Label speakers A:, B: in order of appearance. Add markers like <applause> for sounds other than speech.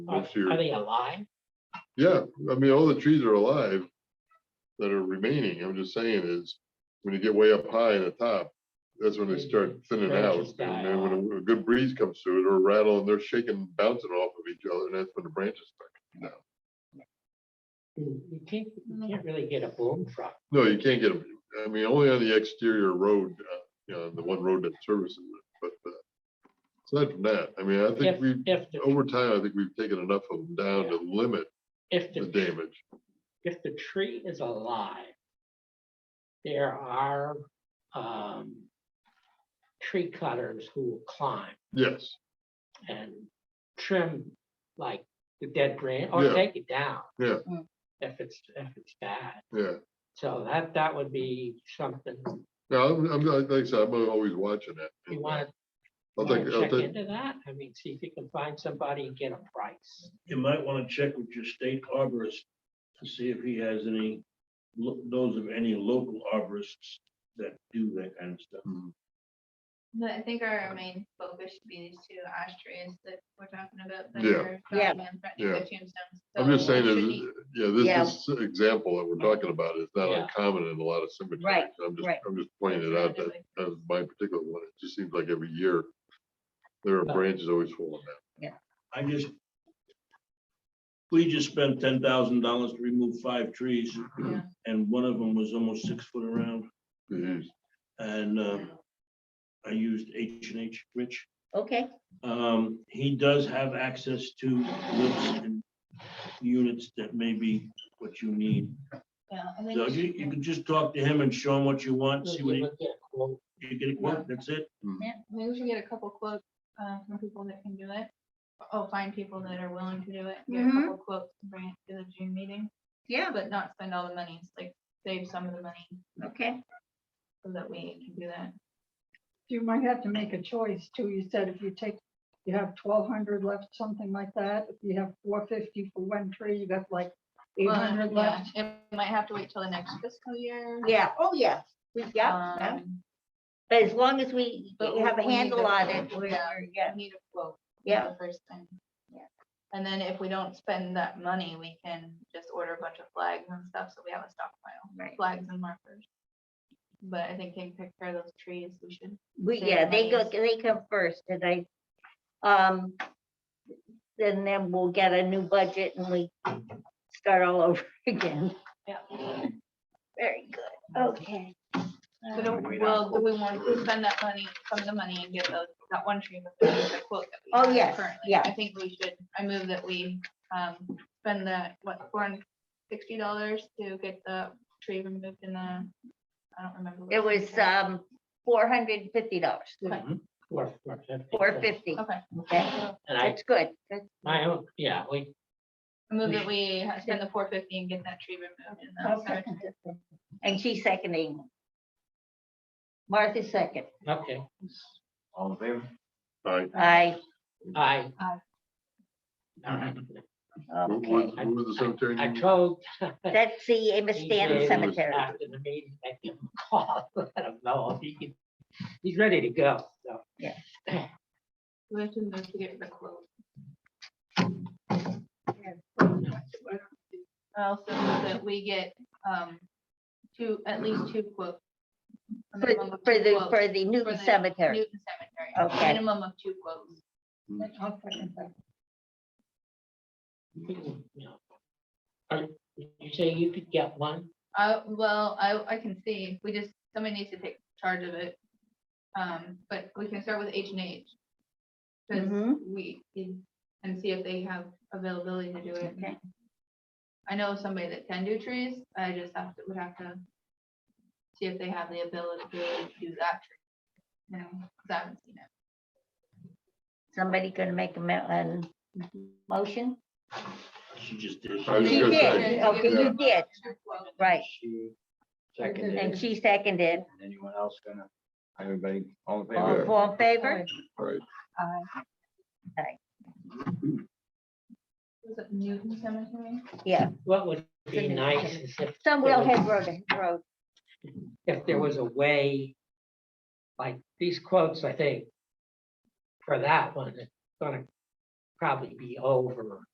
A: Are
B: this year.
A: are they alive?
B: Yeah, I mean, all the trees are alive that are remaining. I'm just saying is, when you get way up high in the top, that's when they start thinning out.
A: Branches die
B: And then when a- a good breeze comes through, it'll rattle and they're shaking, bouncing off of each other, and that's when the branches start. coming down.
A: You can't, you can't really get a boom truck.
B: No, you can't get them. I mean, only on the exterior road, uh, you know, the one road that services it, but uh, aside from that, I mean, I
A: If,
B: think we,
A: if, the
B: over time, I think we've taken enough of them down to limit
A: if
B: the
A: the,
B: damage.
A: if the tree is alive, there are, um, tree cutters who will climb
B: Yes,
A: and trim like the dead branch or
B: Yeah.
A: take it down.
B: Yeah.
C: Mm.
A: If it's, if it's bad.
B: yeah.
A: So that, that would be something
B: No, I'm, I'm, like I said, I'm always watching it. uh,
A: you want
B: I'll
A: to
B: take, I'll
A: check
B: take,
A: into that. I mean, see if you can find somebody and get a price.
D: you might want to check with your state arborist to see if he has any, lo- those of any local arborists that do that kind of stuff.
B: mm,
E: But I think our main focus should be these two ash trees that we're talking about. that
B: Yeah.
E: are
C: Yeah.
E: dying and
B: Yeah.
E: threatening the tombstones.
B: I'm just
E: So
B: saying,
E: we should
B: is,
E: be-
B: yeah,
C: Yeah.
B: this, this example that we're talking about is not
A: Yeah.
B: uncommon in a lot of cemeteries.
C: Right,
B: I'm just,
C: right.
B: I'm just pointing it out that, <clears throat>
E: Definitely.
B: that's my particular one. It just seems like every year there are
A: But-
B: branches always falling down.
D: I just, we just spent ten thousand dollars to remove five trees,
E: Yeah.
D: and one of them was almost six foot around,
B: Jeez.
D: and um, I used H and H Rich.
C: Okay,
D: Um, he does have access to lifts and units that may be what you need.
E: Yeah, I think
D: So
E: we
D: you,
E: should-
D: you can just talk to him and show him what you want, see what he
A: Look at a quote.
D: You get a quote, that's it.
E: Maybe we should get a couple quotes uh, from people that can do it. Oh, find people that are willing to do it. Get a
C: Mhm.
E: couple quotes and bring it to the June meeting.
C: yeah,
E: But not spend all the money, It's like save some of the money
C: okay.
E: so that we can do that.
F: you might have to make a choice too. You said if you take, you have twelve hundred left, something like that. If you have four fifty for one tree, you got like eight
E: Well,
F: hundred left.
E: yeah, It might have to wait till the next fiscal year.
C: Yeah, oh, yeah, we, yeah, yeah.
E: Um,
C: but as long as we
E: but
C: have a
E: we need
C: handle
E: the
C: on
E: quote.
C: it, we're,
E: Yeah.
C: we're- yeah,
E: I need a quote. for
C: Yeah.
E: the First thing.
C: Yeah.
E: And then if we don't spend that money, we can just order a bunch of flags and stuff, so we have a stockpile,
C: right.
E: flags and markers. But I think taking care of those trees, we should.
C: We,
E: Save
C: yeah, they go,
E: monies.
C: they come first and I, um, then then we'll get a new budget and we start all over <laughs> again.
E: Yeah.
C: Very good, okay.
E: So don't, well, do we want to spend that money, some of the money and get those, that one tree? with the quote that we
C: Oh,
E: have
C: yes,
E: currently?
C: yeah.
E: I think we should, I move that we, um, spend the, what, four hundred sixty dollars to get the tree removed in the, I don't remember. what
C: It was,
E: said.
C: um, four hundred and fifty dollars,
E: Okay.
A: Four, four fifty.
C: four fifty,
E: Okay.
C: okay,
E: so
A: And I,
C: that's good, that's
A: my own, yeah, we,
E: I move that we ha- spend the four fifty and get that tree removed in the
C: I'll
E: cemetery.
C: second it then. And she's seconding. Martha second.
A: okay,
G: All in favor?
B: All right,
C: I,
A: I.
E: Aye.
A: All right,
B: who-
C: okay.
B: who- who was the cemetery?
A: I
B: name?
A: told.
C: That's the Amos Stanton
A: DJ
C: Cemetery.
A: After the meeting, I give him a call, let him <laughs> know, if he can, he's ready to go, so.
E: We have to move to get the quote. Also, that we get, um, two, at least two quotes. a
C: For
E: minimum of
C: for
E: two
C: the,
E: quotes
C: for the
E: for
C: Newton
E: the
C: Cemetery.
E: Newton Cemetery,
C: Okay.
E: a minimum of two quotes.
F: I'll second that.
A: you know. Are- You say you could get one,
E: I, well, I, I can see, we just, somebody needs to take charge of it. Um, but we can start with H and H. Cause
C: Mhm.
E: we, and see if they have availability to do it.
C: Okay.
E: I know somebody that can do trees, I just have to, would have to see if they have the ability to do that tree. You know, 'cause I haven't seen it.
C: Somebody gonna make a mo- an motion?
D: She Oh, just did.
B: I was
C: You
B: gonna
C: did,
B: say,
C: okay, you
B: yeah.
C: did, right,
G: She seconded
C: and
G: it.
C: she seconded.
G: Anyone else gonna, everybody, all in
C: All
G: favor?
C: all in favor?
B: All right,
E: Uh, Was it Newton Cemetery?
C: Yeah,
A: what would be
C: Goodness.
A: nice is if,
C: some will have road, road.
A: if there was a way, like, these quotes, I think, for that one, it's gonna probably be over